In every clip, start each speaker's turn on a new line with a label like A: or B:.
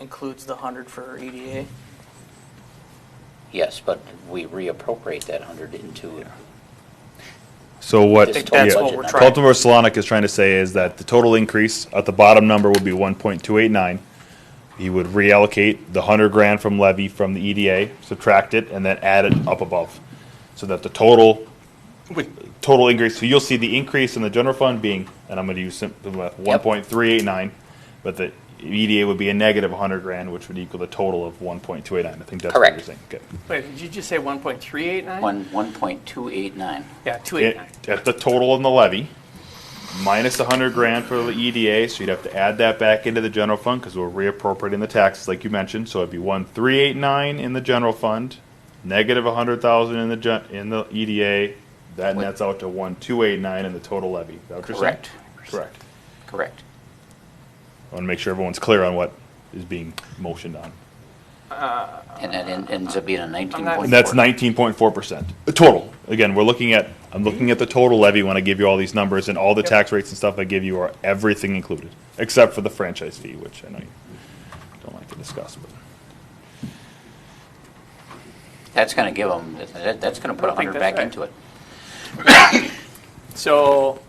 A: includes the hundred for E EDA.
B: Yes, but we reappropriate that hundred into,
C: So what?
B: I think that's
C: yeah,
B: what we're
A: trying-
C: Baltimore Solonic is trying to say is that the total increase at the bottom number would be one point two eight nine. He would reallocate the hundred grand from levy from the EDA, subtract it, and then add it up above, so that the total total increase. So you'll see the increase in the general fund being, and I'm going to use simple math, one
B: Yep.
C: point three eight nine, but the EDA would be a negative hundred grand, which would equal the total of one point two eight nine. I think that's what you're
B: Correct.
C: saying. Okay.
D: Wait, did you just say 1.389?
B: one, one point two eight nine.
D: Yeah,
C: it-
D: 289.
C: at the total in the levy, minus a hundred grand for the EDA, so you'd have to add that back into the general fund, because we're reappropriating the taxes, like you mentioned, so it'd be one three eight nine in the general fund, negative a hundred thousand in the gen, in the EDA, that
B: Wait.
C: nets out to one two eight nine in the total levy, is that what you're saying?
B: Correct.
C: Correct.
B: Correct.
C: I wanna make sure everyone's clear on what is being motioned on.
B: And that en- ends up being a nineteen point four.
C: And that's nineteen point four percent, total. Again, we're looking at, I'm looking at the total levy when I give you all these numbers, and all the tax rates and stuff I give you are everything included, except for the franchise fee, which I know you don't like to discuss, but.
B: That's gonna give them, that, that's gonna put
D: I
B: a
D: don't think
B: hundred back
D: that's
B: into it.
D: So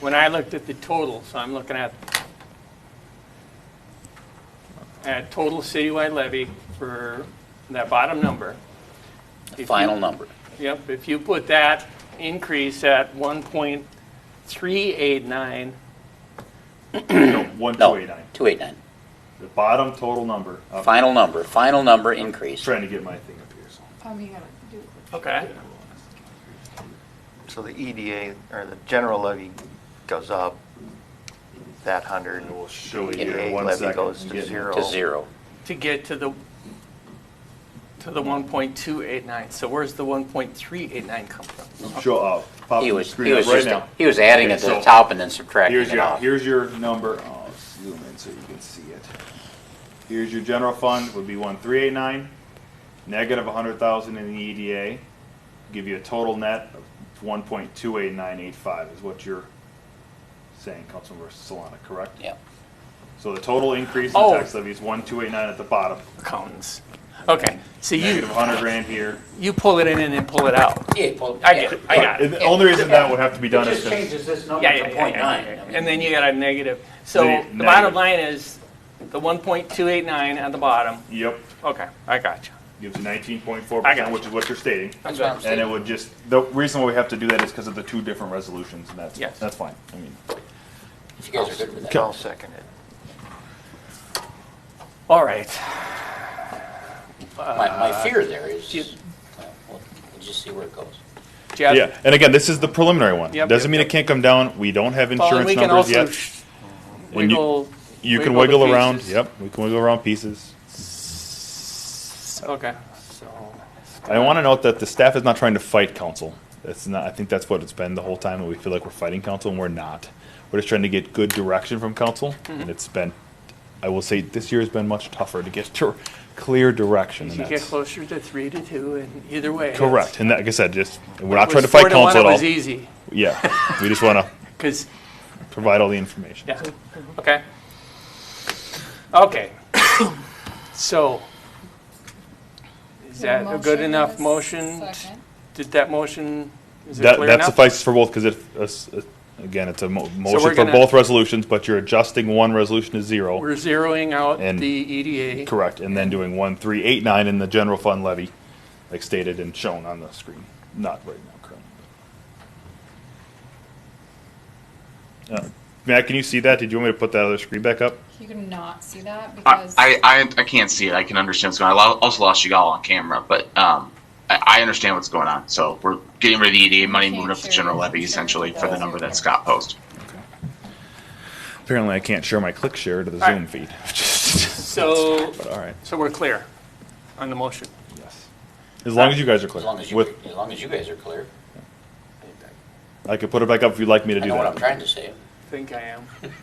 D: when I looked at the total, so I'm looking at, at total citywide levy for that bottom number. If you-
B: Final number.
D: Yep, if you put that increase at 1.389,
C: One,
B: No, two eight nine.
C: the bottom total number, I'm
B: Final number, final number increase.
C: trying to get my thing up here, so.
E: Um, you gotta do it.
D: okay,
F: So the EDA, or the general levy goes up that hundred.
C: And we'll show you here in
F: EDA
C: one
F: levy
C: second.
F: goes to
C: Getting-
F: zero.
B: To zero.
D: to get to the, to the 1.289. So where's the 1.389 come from?
C: Show up, pop
B: He
C: the
B: was, he
C: screen up
B: was
C: right
B: just,
C: now.
B: he was adding
C: Okay,
B: it to the
C: so
B: top and then subtracting
C: Here's
B: it
C: your,
B: off.
C: here's your number, I'll zoom in so you can see it. Here's your general fund, would be one three eight nine, negative a hundred thousand in the EDA, give you a total net of one point two eight nine eight five is what you're saying, Councilmember Solana, correct?
B: Yeah.
C: So the total increase in
D: Oh.
C: tax levy is one two eight nine at the bottom,
D: Accountants. Okay, so you,
C: negative a hundred grand here.
D: you pull it in and then pull it out.
B: Yeah, well,
D: I get it, I got it.
C: And the only reason that would have to be done is
B: just
C: because
B: changes this number
D: Yeah,
B: to
D: yeah, yeah,
B: point
D: yeah.
B: nine. I mean,
D: And then you got a negative.
C: The
D: So the
C: negative.
D: bottom line is the 1.289 at the bottom.
C: yep,
D: Okay, I got you.
C: gives you nineteen point four
D: I got
C: percent, which
D: you.
C: is what you're stating.
B: That's what I'm
C: And it
B: saying.
C: would just, the reason why we have to do that is because of the two different resolutions, and that's,
D: Yes.
C: that's fine. I mean,
B: You guys are good with that.
F: I'll second it.
D: All right.
B: My, my fear there is,
D: you-
B: uh, we'll we'll just see where it goes.
D: Jeff?
C: yeah, and again, this is the preliminary one.
D: Yep,
C: Doesn't
D: yep,
C: mean it
D: yep.
C: can't come down, we don't have
D: Well, and
C: insurance
D: we can
C: numbers
D: also
C: yet.
D: sh-
C: And you-
D: wiggle.
C: You can
D: wiggle the
C: wiggle around,
D: pieces.
C: yep, we can wiggle around pieces.
D: Okay, so,
C: I want to note that the staff is not trying to fight council. That's not, I think that's what it's been the whole time, that we feel like we're fighting council, and we're not. We're just trying to get good direction from council,
D: Mm-hmm.
C: and it's been, I will say, this year has been much tougher to get to clear direction. and
D: you get
C: that's-
D: closer to three to two and either way. it's-
C: Correct, and like I said, just, we're
D: It
C: not
D: was
C: trying to
D: four
C: fight
D: one,
C: council at
D: It
C: all.
D: was easy,
C: Yeah, we just want to
D: because,
C: provide all the information.
D: yeah, okay. Okay. So, is that a good
E: Motion
D: enough
E: and a
D: motion?
E: second.
D: Did that motion, is it
C: That,
D: clear
C: that
D: enough?
C: suffices for both, because it, uh, s- uh, again, it's a mo- motion for
D: gonna-
C: both resolutions, but you're adjusting one resolution to zero.
D: We're zeroing out
C: And-
D: the E EDA.
C: Correct, and then doing one, three, eight, nine in the general fund levy, like stated and shown on the screen, not right now currently. Uh, Matt, can you see that? Did you want me to put that other screen back up?
E: You can not see that
G: I,
E: because.
G: I, I- I can't see it. I can understand what's going on. I lo- also lost you all on camera, but um, I, I understand what's going on. So we're getting rid of the EDA money, moving up the general levy essentially for the number that Scott posed.
C: Apparently, I can't share my click share to the
D: All right.
C: Zoom feed.
D: So,
C: But all right,
D: so we're clear on the motion.
C: yes. As long as you guys are
B: As
C: clear.
B: long as you,
C: With-
B: as long as you guys are clear.
C: I could put it back up if you'd like me to
B: I
C: do
B: know what
C: that.
B: I'm trying to say.
D: I think I am. The-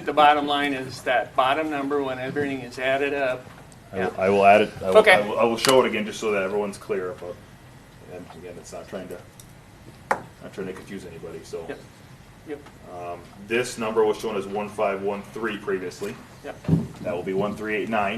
D: The bottom line is that bottom number, when everything is added up,
C: I will, I will add it. I will,
D: Okay.
C: I will, I will show it again just so that everyone's clear about. And again, it's not trying to, not trying to confuse anybody. So
D: Yep. Yep,
C: This number was shown as one five one three previously.
D: yep.
C: That will be one three eight nine.